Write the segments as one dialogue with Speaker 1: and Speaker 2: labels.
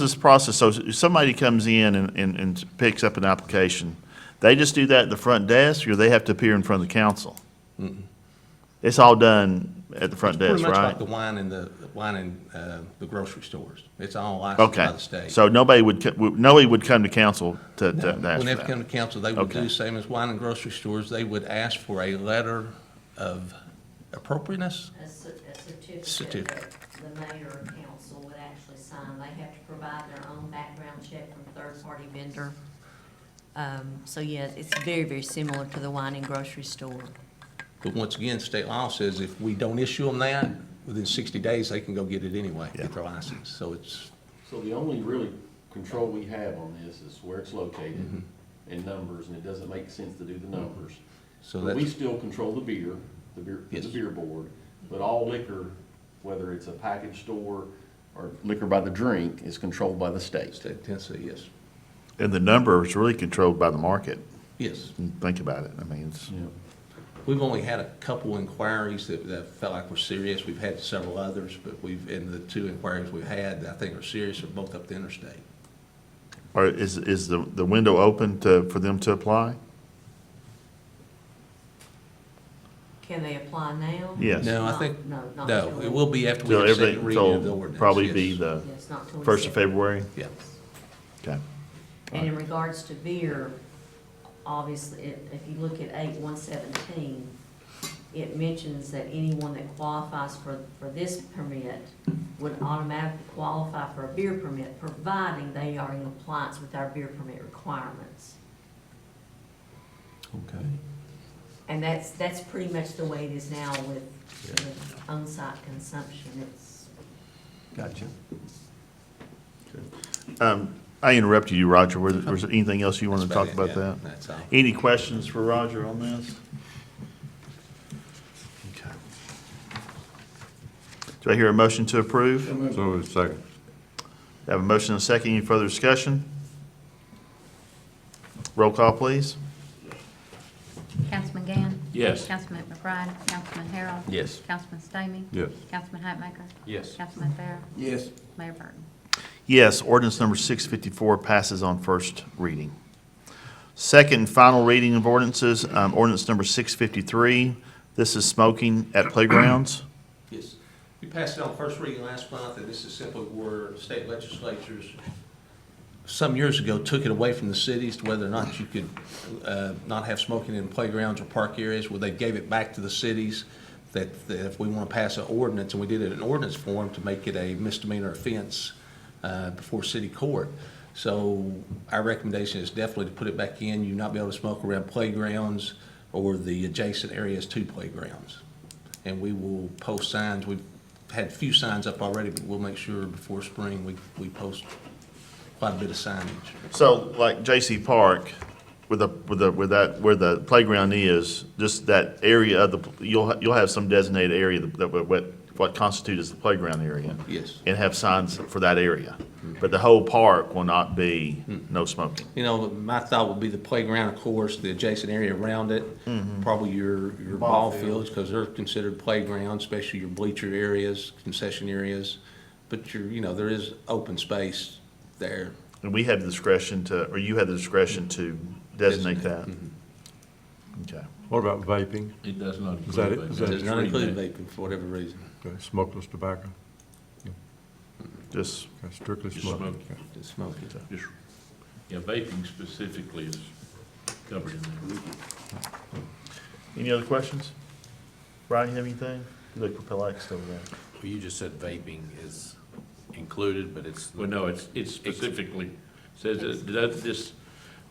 Speaker 1: this process, so if somebody comes in and, and, and picks up an application, they just do that at the front desk, or they have to appear in front of the council? It's all done at the front
Speaker 2: Pretty
Speaker 1: desk,
Speaker 2: much like
Speaker 1: right?
Speaker 2: the wine and the, wine and, uh, the grocery stores. It's all licensed by
Speaker 1: Okay,
Speaker 2: the state.
Speaker 1: so nobody would, co- would- nobody would come to council to, to
Speaker 2: No,
Speaker 1: to ask
Speaker 2: When
Speaker 1: for
Speaker 2: they come
Speaker 1: that?
Speaker 2: to council, they would
Speaker 1: Okay.
Speaker 2: do same as wine and grocery stores. They would ask for a letter of appropriateness.
Speaker 3: a cer- a certificate
Speaker 2: Certificate.
Speaker 3: that the mayor or council would actually sign. They have to provide their own background check from third-party vendor. Um, So yeah, it's very, very similar to the wine and grocery store.
Speaker 2: But once again, state law says if we don't issue them that, within 60 days, they can go get it anyway, get their license. So it's,
Speaker 4: So the only really control we have on this is where it's located and numbers, and it doesn't make sense to do the numbers.
Speaker 2: Mm-hmm. so
Speaker 4: But we
Speaker 2: that's,
Speaker 4: still control the beer, the beer, the
Speaker 2: Yes.
Speaker 4: beer board, but all liquor, whether it's a package store or liquor by the drink, is controlled by the state.
Speaker 2: state of Tennessee, yes.
Speaker 1: And the number is really controlled by the market,
Speaker 2: Yes.
Speaker 1: think about it, I mean, it's,
Speaker 2: We've only had a couple inquiries that, that felt like were serious. We've had several others, but we've, and the two inquiries we've had, that I think are serious, are both up the interstate.
Speaker 1: or is, is the, the window open to, for them to apply?
Speaker 3: Can they apply now?
Speaker 1: Yes.
Speaker 2: No, I
Speaker 3: Not-
Speaker 2: think-
Speaker 3: No, not till.
Speaker 2: No, it will be after we
Speaker 1: Till
Speaker 2: have second
Speaker 1: everything,
Speaker 2: reading of the
Speaker 1: till
Speaker 2: ordinance.
Speaker 1: probably
Speaker 2: yes.
Speaker 1: be the
Speaker 3: Yes, not till. we
Speaker 1: first of
Speaker 3: set-
Speaker 1: February?
Speaker 2: Yeah.
Speaker 1: Okay,
Speaker 3: And in regards to beer, obviously, if, if you look at eight one seventeen, it mentions that anyone that qualifies for, for this permit would automatically qualify for a beer permit, providing they are in compliance with our beer permit requirements.
Speaker 2: Okay.
Speaker 3: And that's, that's pretty much the way it is now with,
Speaker 2: Yeah.
Speaker 3: with on-site consumption, it's.
Speaker 2: Gotcha.
Speaker 1: um, I interrupted you, Roger, was, was there anything else you wanted to talk about that?
Speaker 2: That's all.
Speaker 1: Any questions for Roger on this? Okay. Do I hear a motion to approve?
Speaker 5: So moved, second.
Speaker 1: Have a motion and a second. Any further discussion? Roll call, please.
Speaker 6: Councilman Gann?
Speaker 4: Yes.
Speaker 6: Councilman McBride? Councilman Harrell?
Speaker 4: Yes.
Speaker 6: Councilman Stamey?
Speaker 5: Yes.
Speaker 6: Councilman Hatmaker?
Speaker 4: Yes.
Speaker 6: Councilman Fair?
Speaker 4: Yes.
Speaker 6: Mayor Burton?
Speaker 1: Yes, ordinance number 654 passes on first reading. Second and final reading of ordinances, um, ordinance number 653. This is smoking at playgrounds.
Speaker 2: Yes. We passed it on first reading last month, and this is simply where state legislatures, some years ago, took it away from the cities to whether or not you could uh, not have smoking in playgrounds or park areas, where they gave it back to the cities, that that if we want to pass an ordinance, and we did it in ordinance form to make it a misdemeanor offense uh, before city court. So our recommendation is definitely to put it back in, you not be able to smoke around playgrounds or the adjacent areas to playgrounds and we will post signs. We've had few signs up already, but we'll make sure before spring, we, we post quite a bit of signage.
Speaker 1: So like J.C. Park, with the, with the, with that, where the playground is, just that area of the, you'll, ha- you'll have some designated area that, what, what constitutes as the playground area.
Speaker 2: Yes.
Speaker 1: And have signs for that area. But the whole park will not be no smoking.
Speaker 2: You know, my thought would be the playground, of course, the adjacent area around it,
Speaker 5: Mm-hmm.
Speaker 2: probably your, your ball fields, because they're considered playgrounds, especially your bleacher areas, concession areas. But your, you know, there is open space there.
Speaker 1: And we have the discretion to, or you have the discretion to designate that? Okay.
Speaker 5: What about vaping?
Speaker 7: It does not
Speaker 5: Is that it?
Speaker 7: include vaping.
Speaker 5: Is
Speaker 2: It
Speaker 5: that
Speaker 2: does
Speaker 5: It's
Speaker 2: not
Speaker 7: Free
Speaker 2: include
Speaker 7: vape.
Speaker 2: vaping for whatever reason.
Speaker 5: Okay, Smokeless tobacco,
Speaker 1: Just,
Speaker 5: Okay, strictly
Speaker 7: Just
Speaker 5: smoking.
Speaker 7: smoking.
Speaker 5: Okay.
Speaker 2: Just smoking.
Speaker 7: Just- Yeah, vaping specifically is covered in there.
Speaker 1: any other questions? Brian, you have anything? You look perplexed over there.
Speaker 8: Well, you just said vaping is included, but it's.
Speaker 7: Well, no, it's, it specifically says that, that this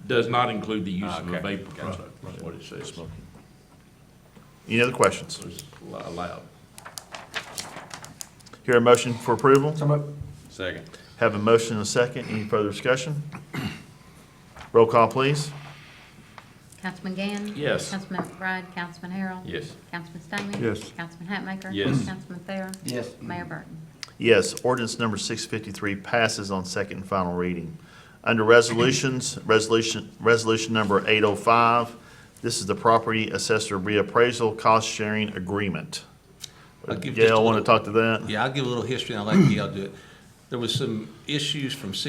Speaker 7: does not include the use of a
Speaker 8: Okay,
Speaker 7: vape
Speaker 8: gotcha.
Speaker 7: product, is what it says. So
Speaker 1: Any other questions?
Speaker 7: it's li- allowed.
Speaker 1: Hear a motion for approval?
Speaker 8: Second.
Speaker 1: Have a motion and a second. Any further discussion? Roll call, please.
Speaker 6: Councilman Gann?
Speaker 7: Yes.
Speaker 6: Councilman McBride? Councilman Harrell?
Speaker 7: Yes.
Speaker 6: Councilman Stamey?
Speaker 5: Yes.
Speaker 6: Councilman Hatmaker?
Speaker 8: Yes.
Speaker 6: Councilman Fair? Yes. Mayor Burton?
Speaker 1: Yes, ordinance number 653 passes on second and final reading. Under resolutions, resolution, resolution number 805, this is the property assessor reappraisal cost sharing agreement.
Speaker 2: I'll give just a
Speaker 1: Gail, want to
Speaker 2: little-
Speaker 1: talk to that?
Speaker 2: Yeah, I'll give a little history, and I'll let Gail do it. There was some issues from C